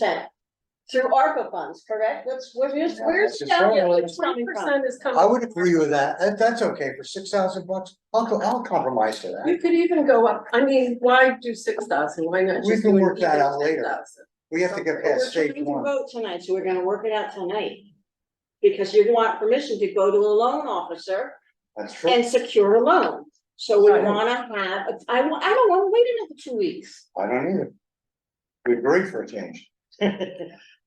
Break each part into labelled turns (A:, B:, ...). A: percent through ARPA funds, correct? What's, what is,
B: Yeah,
A: where's
B: that's
A: down
B: just-
A: here,
B: Yeah,
A: twenty percent is coming?
B: I would agree with that, that, that's okay, for six thousand bucks, I'll, co- I'll compromise to
C: You
B: that,
C: could even go up, I mean, why do six thousand, why not
B: We
C: just
B: can
C: do an
B: work that
C: even
B: out later.
C: 10,000?
B: we have to get
A: But
B: past
A: We're
B: stage
A: trying to
B: one.
A: vote tonight, so we're gonna work it out tonight. Because you want permission to go to a loan officer
B: That's true,
A: and secure a loan. So we
C: Right.
A: wanna have, a- I, wa- I don't wanna wait another two weeks.
B: I don't either. We agree for a change,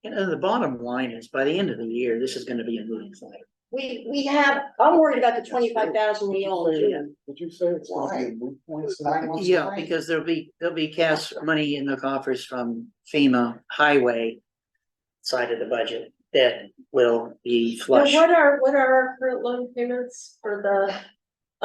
D: And then the bottom line is, by the end of the year, this is gonna be a moving thing.
A: We, we have, I'm worried about the twenty-five thousand we owe in June.
E: Did you say it's
B: gonna be a
E: moot
B: it's nine months
D: Yeah,
B: away.
D: because there'll be, there'll be cash money in the coffers from FEMA highway side of the budget that will be
C: Now,
D: flush,
C: what are, what are our current loan payments for the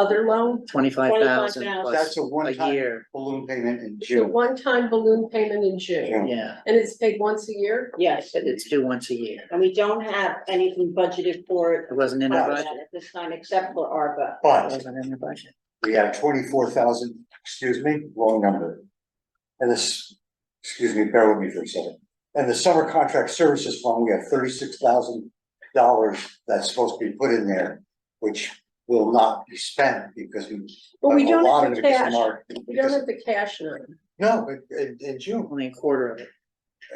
C: other loan?
D: twenty-five thousand
A: 25,000.
D: plus
B: that's a
D: a
B: one-time
D: year,
B: balloon payment in
C: It's a
B: June.
C: one-time balloon payment in June,
B: June.
D: yeah,
C: and it's paid once a year?
A: Yes,
D: it- it's due once a year.
A: and we don't have anything budgeted for it
D: It wasn't in the
A: at
D: budget,
A: this time except for ARPA.
D: it
B: But
D: wasn't in the budget.
B: we have twenty-four thousand, excuse me, wrong number. And this, excuse me, bear with me for a second. And the summer contract services fund, we have thirty-six thousand dollars that's supposed to be put in there, which will not be spent because we.
C: But we
B: a
C: don't
B: lot
C: have
B: of
C: the
B: it gets
C: cash,
B: marked
C: we don't
B: because-
C: have the cash now.
B: No, but in, in June,
D: Only a quarter of it,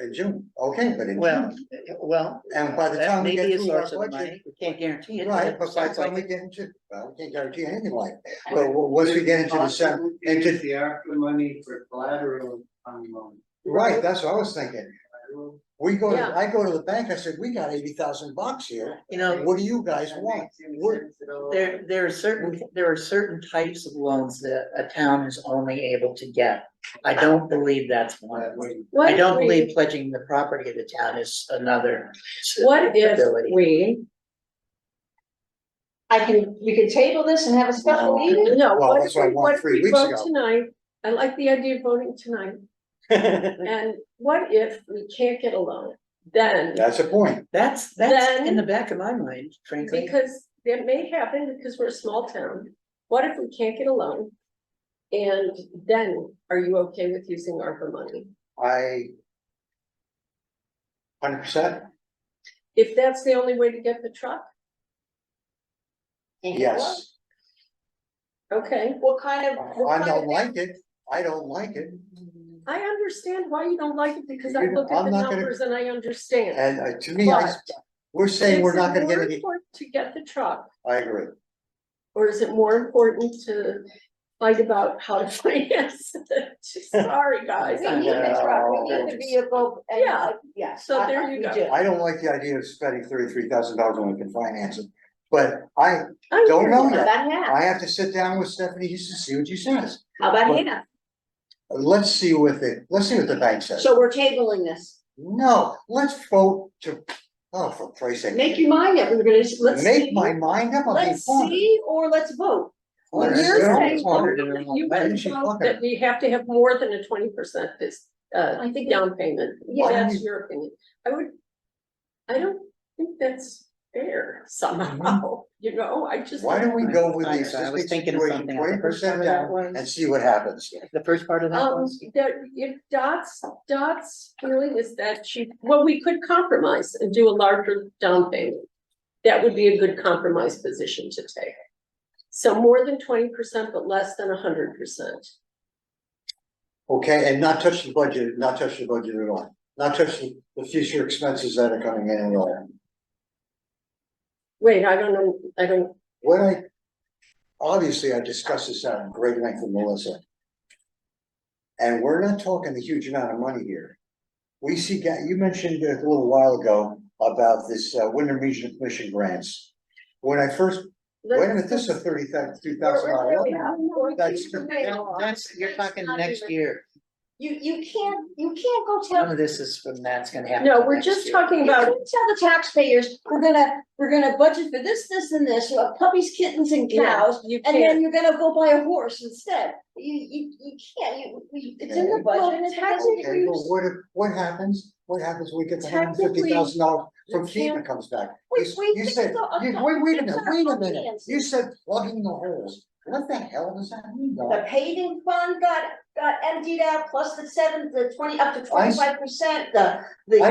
B: in June, okay, but in
D: well,
B: June,
D: well.
B: and by the
D: that
B: time
D: may
B: we
D: be a
B: get through our
D: source of
B: budget.
D: money. We can't guarantee it.
B: Right, but by the
D: it's
B: time we
D: something.
B: get into, well, we can't guarantee anything like that, but w- once we get into the sem- into-
E: Use the ARPA money for collateral on loan.
B: right, that's what I was thinking. We go, to
C: Yeah.
B: I go to the bank, I said, we got eighty thousand bucks here,
D: You know,
B: what do you guys
E: That
B: want?
E: makes any
B: We're-
E: sense at all.
D: There, there are certain, there are certain types of loans that a town is only able to get. I don't believe that's one of them.
E: That way,
D: I
C: What
D: don't
C: if we-
D: believe pledging the property of the town is another.
C: What if
D: ability.
C: we,
A: I can, we can table this and have a special
B: No.
A: meeting?
C: no,
B: Well,
C: what if
B: that's what I
C: we,
B: want
C: what if
B: three
C: we
B: weeks
C: vote
B: ago.
C: tonight? I like the idea of voting tonight, and what if we can't get a loan? Then
B: That's a point,
D: That's, that's in
C: Then-
D: the back of my mind, frankly.
C: Because that may happen because we're a small town. What if we can't get a loan? And then are you okay with using ARPA money?
B: I. Hundred percent,
C: If that's the only way to get the truck,
B: yes,
C: okay.
A: What kind of? what
B: Oh, I
A: kind
B: don't
A: of-
B: like it, I don't like it,
C: I understand why you don't like it because I
B: You know,
C: look at
B: I'm
C: the
B: not gonna-
C: numbers and I understand.
B: and uh, to me, I,
C: But
B: we're saying we're
C: is it
B: not gonna get
C: more
B: any,
C: important To get the truck,
B: I agree.
C: or is it more important to fight about how to finance it? Sorry, guys.
A: We need the truck, we need the vehicle, and,
C: Yeah.
A: uh, yes.
C: So
A: I-
C: there
A: I-
C: you
A: we
C: go.
A: do.
B: I don't like the idea of spending thirty-three thousand dollars when we can finance it, but I,
C: I
B: Don't
C: hear
B: know
C: you.
A: How about Hannah?
B: I have to sit down with Stephanie to see what she says.
A: How about Hannah?
B: Let's see what the, let's see what the bank says.
A: So we're tabling this.
B: No, let's vote to, oh, for Christ's sake.
A: Make your mind up, we're gonna, let's
B: Make
A: see,
B: my mind up, I'm being
A: let's
B: funny.
A: see, or let's vote.
C: Well,
B: Let's
C: you're
B: go.
C: saying-
B: Funny.
C: You
B: Why
C: would
B: didn't she
C: vote
B: fuck
C: that
B: it?
C: we have to have more than a twenty percent this, uh,
A: I think-
C: down payment.
A: Yeah.
C: That's your opinion. I would, I don't think that's fair somehow, you know, I just.
B: Why don't we go with
D: I- I
B: the
D: was
B: existing
D: thinking of
B: situation,
D: something on the
B: twenty
D: first
B: percent
D: part of that
B: down,
D: was-
B: and see what happens?
D: The first part of that
C: Um,
D: was,
C: that, if Dot's, Dot's feeling is that she, well, we could compromise and do a larger down payment. That would be a good compromise position to take. So more than twenty percent, but less than hundred percent.
B: Okay, and not touch the budget, not touch the budget at all, not touch the, the future expenses that are coming in at all.
C: Wait, I don't know, I don't
B: What I, obviously, I discussed this out in great length with Melissa. And we're not talking a huge amount of money here. We see, ga- you mentioned a little while ago about this uh, Wyndham Regional Commission grants. When I first, wait a minute, this is a thirty thousand, two thousand dollar. That's-
D: No, that's, you're talking next year,
A: You, you can't, you can't go tell,
D: none of this is from that's gonna happen.
C: No, we're
D: next
C: just
D: year.
C: talking
A: you
C: about,
A: can't tell the taxpayers, we're gonna, we're gonna budget for this, this and this, you have puppies, kittens and cows.
C: cows. you
A: And then
C: can't.
A: you're gonna go buy a horse instead. You, you, you can't, you, you- it's in the budget. and it's in
B: Okay,
A: the
B: well,
A: budget.
B: what, if- what happens, what happens when we get the hundred fifty thousand dollars from FEMA comes back? You
A: Wait,
B: s-
A: wait,
B: You
A: this is
B: said,
A: all-
B: you, wait, wait a minute,
A: it's our
B: wait a minute,
A: finances.
B: you said plugging the holes, What the hell does that mean, Doc?
A: The paving fund got, got emptied out, plus the seven, the twenty, up to
B: I s-
A: twenty-five percent, the, the.
B: I